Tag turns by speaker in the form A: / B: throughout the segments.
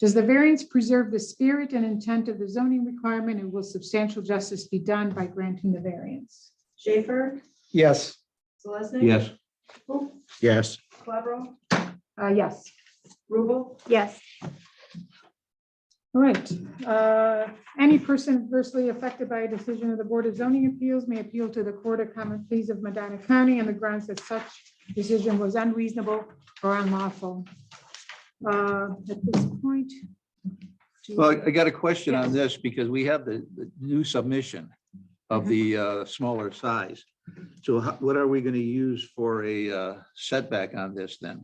A: Does the variance preserve the spirit and intent of the zoning requirement and will substantial justice be done by granting the variance?
B: Schaefer,
C: Yes.
B: Selesnik.
D: yes,
B: Hook,
C: Yes.
B: Clavero,
A: Uh, yes.
B: Rubel,
E: yes,
A: All right. Uh, Any person adversely affected by a decision of the Board of Zoning Appeals may appeal to the Court of Common Pleas of Medina County on the grounds that such decision was unreasonable or unlawful. Uh, At this point. do-
D: well, I got a question on this because we have the, the new submission of the uh, smaller size. So how- what are we going to use for a uh, setback on this then?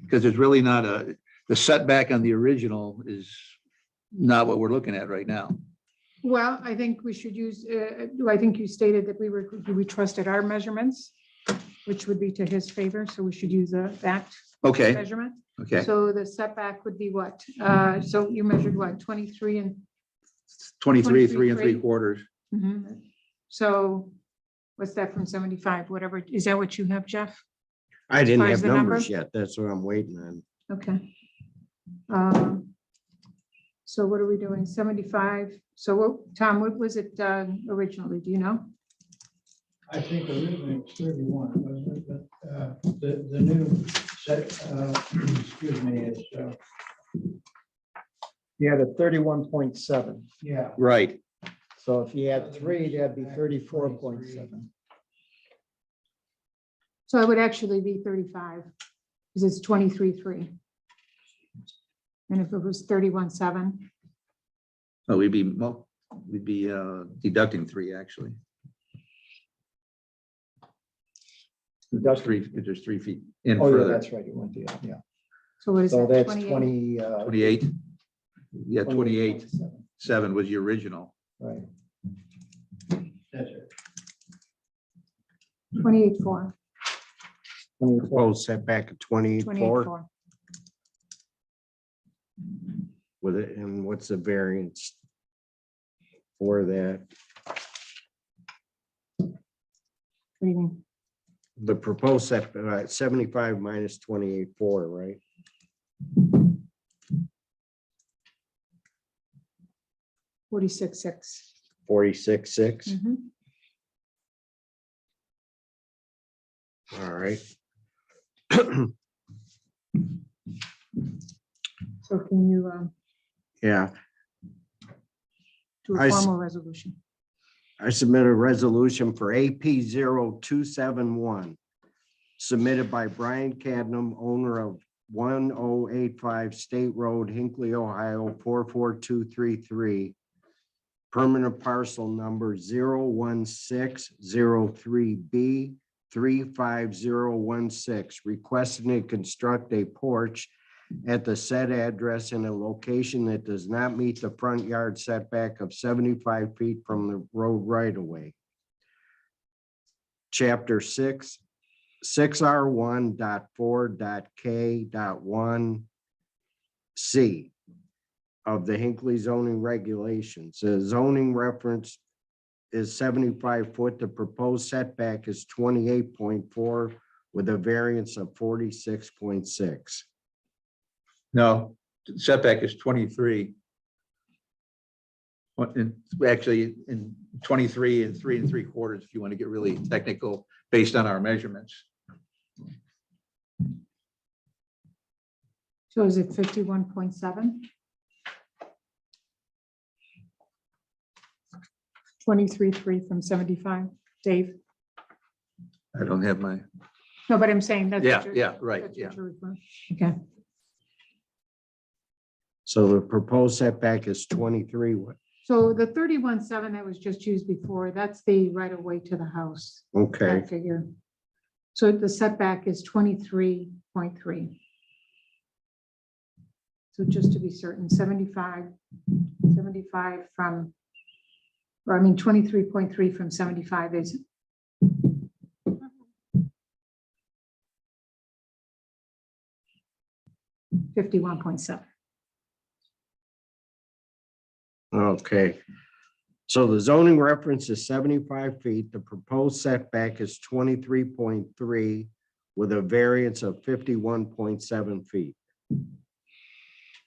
D: Because it's really not a, the setback on the original is not what we're looking at right now.
A: Well, I think we should use, uh, I think you stated that we were, we trusted our measurements, which would be to his favor, so we should use uh, that
D: Okay,
A: measurement.
D: okay,
A: So the setback would be what? Uh, So you measured what, 23 and
D: twenty-three, three and
A: 23.
D: three quarters.
A: Mhm. So what's that from seventy-five, whatever, is that what you have, Jeff?
C: I didn't
A: far as
C: have
A: the number?
C: numbers yet. That's what I'm waiting on.
A: Okay. Um, So what are we doing, seventy-five? So what, Tom, what was it um, originally, do you know?
F: I think originally it was thirty-one, wasn't it? But uh, the, the new set, uh, excuse me, is, uh,
G: You had a thirty-one point seven,
F: yeah.
D: Right,
G: so if you had three, that'd be thirty-four point seven.
A: So it would actually be thirty-five, because it's twenty-three-three. And if it was thirty-one-seven,
D: Oh, we'd be, mul- we'd be uh, deducting three, actually. That's three, if there's three feet in
G: Oh, yeah,
D: further,
G: that's right, you went the, yeah,
A: so what is
G: so
A: that,
G: that's
A: twenty-eight?
G: twenty. uh,
D: twenty-eight. Yeah,
G: 28,
D: twenty-eight,
G: 27,
D: seven was the original.
G: Right,
F: That's it.
A: Twenty-eight-four,
G: twenty-four,
C: Proposed setback of twenty-four
A: twenty-eight-four.
C: with it, and what's the variance for that?
A: What do you mean?
C: The proposed setback, seventy-five minus twenty-eight four, right?
A: Forty-six-six.
C: Forty-six, six,
D: Mm-hmm.
A: Mhm.
C: all right.
A: So can you um,
C: Yeah,
A: do
C: I
A: a
C: s-
A: formal resolution?
C: I submit a resolution for AP 271 submitted by Brian Cadnam, owner of one oh eight five State Road, Hinkley, Ohio, four four two three three. Permanent parcel number 1603 B three five zero one six, requesting to construct a porch at the said address in a location that does not meet the front yard setback of seventy-five feet from the road right of way. Chapter six, six R one dot four dot K dot one C of the Hinkley zoning regulations. The zoning reference is seventy-five foot. The proposed setback is twenty-eight point four with a variance of forty-six point six.
D: No, setback is twenty-three. What, and actually, in twenty-three and three and three quarters, if you want to get really technical, based on our measurements.
A: So is it fifty-one point seven? Twenty-three-three from seventy-five, Dave?
D: I don't have my,
A: No, but I'm saying that's. what
D: yeah,
A: you're-
D: yeah, right,
A: that's
D: yeah.
A: what you're referring- Okay,
C: So the proposed setback is twenty-three, what-
A: so the thirty-one seven that was just used before, that's the right of way to the house,
C: okay,
A: that figure. So the setback is twenty-three point three. So just to be certain, 75, 75 from, or I mean, twenty-three point three from seventy-five is fifty-one point seven.
C: okay. So the zoning reference is seventy-five feet, the proposed setback is twenty-three point three with a variance of fifty-one point seven feet.